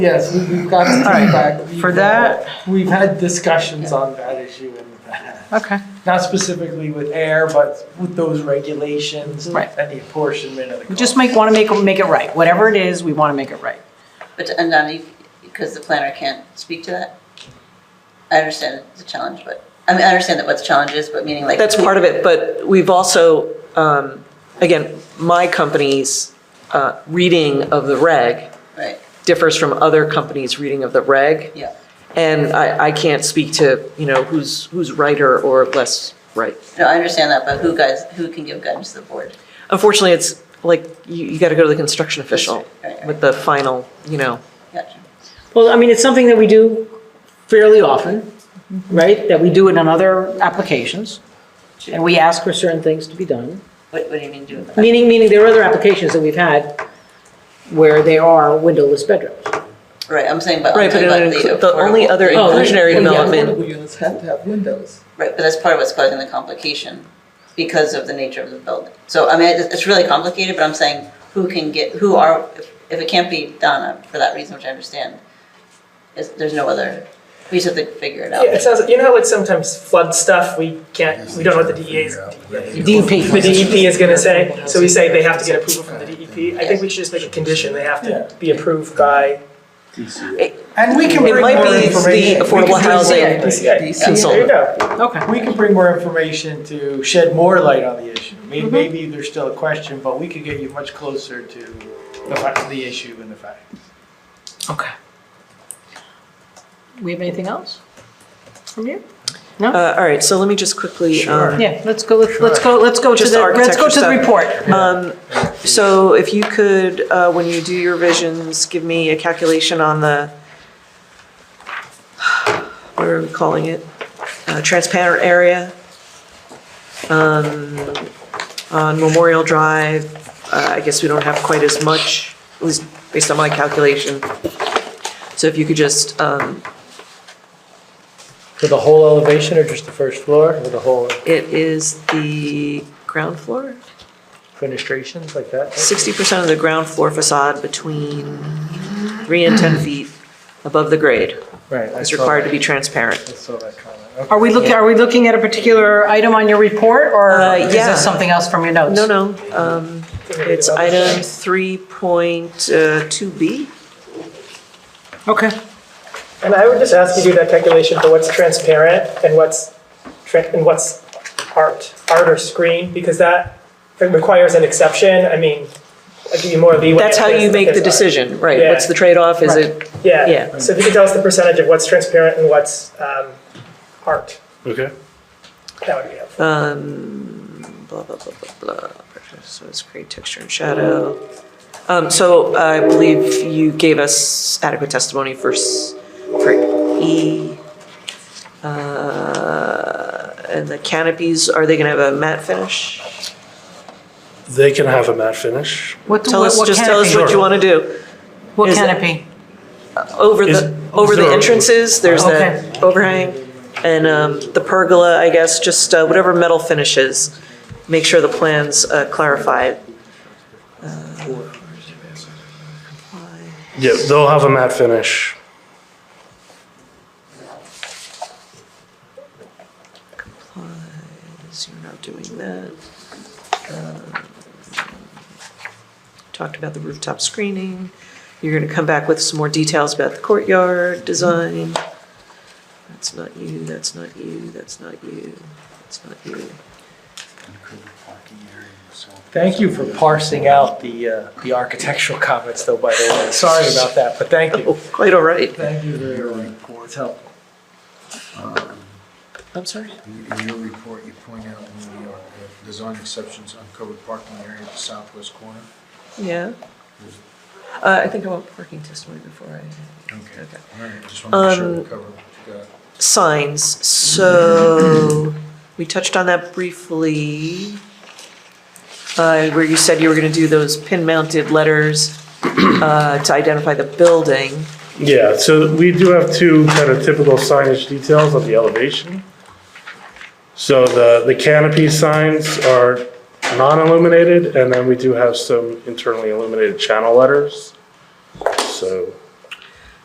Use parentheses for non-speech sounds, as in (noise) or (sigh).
Yes, we- we've got some All right, feedback. We've, for uh, that- We've had discussions on that issue in the past. Okay. Not specifically with air, but with those regulations. Right. And the apportionment of the We cost. just make, want to make, make it right. Whatever it is, we want to make it right. But, and I mean, because the planner can't speak to that? I understand the challenge, but, I mean, I understand that what the challenge is, but meaning like. That's part of it, but we've also, um, again, my company's uh, reading of the reg Right, differs from other companies' reading of the reg. yeah. And I, I can't speak to, you know, who's, who's righter or less right. No, I understand that, but who guys, who can give guidance to the board? Unfortunately, it's like, you, you gotta go to the construction official Right, right. with the final, you know. Gotcha. Well, I mean, it's something that we do fairly often, right? That we do it on other applications. And we ask for certain things to be done. What, what do you mean do with that? Meaning, meaning there are other applications that we've had where there are windowless bedrooms. Right, I'm saying, but. I'm Right, but talking it about inclu- the only affordable- other Oh, inclusionary yeah. development, units have to have windows. Right, but that's part of what's causing the complication because of the nature of the building. So, I mean, it's it's really complicated, but I'm saying who can get, who are, if- if it can't be Donna for that reason, which I understand, is, there's no other, we just have to figure it out. Yeah, it sounds, you know how like sometimes flood stuff, we can't, we don't know what the DEA is. E DEP. The DEP is gonna say, so we say they have to get approval from the DEP. I think we should just make a condition, they have to be approved by. And we can It bring might more be the information. We can affordable bring more housing information. There you consultant. go. Okay. We can bring more information to shed more light on the issue. May- Mm-hmm. Maybe there's still a question, but we could get you much closer to the fa- the issue and the fact. Okay. We have anything else from you? Uh, all right, so let me just quickly, um, Yeah, let's go, let's let's go, let's go to Just the, let's go architecture to the stuff. report. Um, So if you could, uh, when you do your visions, give me a calculation on the, what are we calling it? Uh, Transparent area um, on Memorial Drive. uh, I guess we don't have quite as much, at least based on my calculation. So if you could just, um, For the whole elevation or just the first floor or the whole it is the ground floor? fenestrations like that? sixty percent of the ground floor facade between three and ten feet above the grade Right. I is saw required to that. be transparent. I saw that comment. Okay. Are we looking, are we looking at a particular item on your report or Uh, is yeah. this something else from your notes? No, no, um, it's item three point uh, two B. Okay. And I would just ask you to do that calculation for what's transparent and what's, tran- and what's art, art or screen, because that requires an exception, I mean, I'll give you more leeway. That's how if it's- you if make it's the art. decision, right? Yeah. What's the trade-off? Is it, yeah. Yeah, so if you could tell us the percentage of what's transparent and what's um, art, Okay. that would be helpful. um, blah, blah, blah, blah, blah. So it's create texture and shadow. Um, so I believe you gave us adequate testimony for, s- for E. Uh, and the canopies, are they gonna have a matte finish? They can have a matte finish. What, Tell what us, what just tell us canopy? what you wanna do. What is it- canopy? Over Is- the, over is the there a- entrances, there's Okay. that overhang. And, um, the pergola, I guess, just uh, whatever metal finishes, make sure the plans uh, clarify. Yeah, they'll have a matte finish. So you're not doing that. Um, Talked about the rooftop screening. You're gonna come back with some more details about the courtyard design. That's not you, that's not you, that's not you, that's not you. Thank you for parsing out the, uh, the architectural comments though, by the way. Sorry about that, but thank you. Oh, quite all right. Thank you very much. It's helpful. I'm sorry? In in your report, you point out in New York, uh, design exceptions, uncovered parking area at the southwest corner. Yeah. Uh, I think I want parking testimony before I, Okay. okay. All right, just want to make sure we cover what you got. Signs, so, we touched on that briefly. Uh, where you said you were gonna do those pin-mounted letters, (clears throat) uh, to identify the building. Yeah, so we do have two kind of typical signage details on the elevation. So the, the canopy signs are non-illuminated, and then we do have some internally illuminated channel letters. So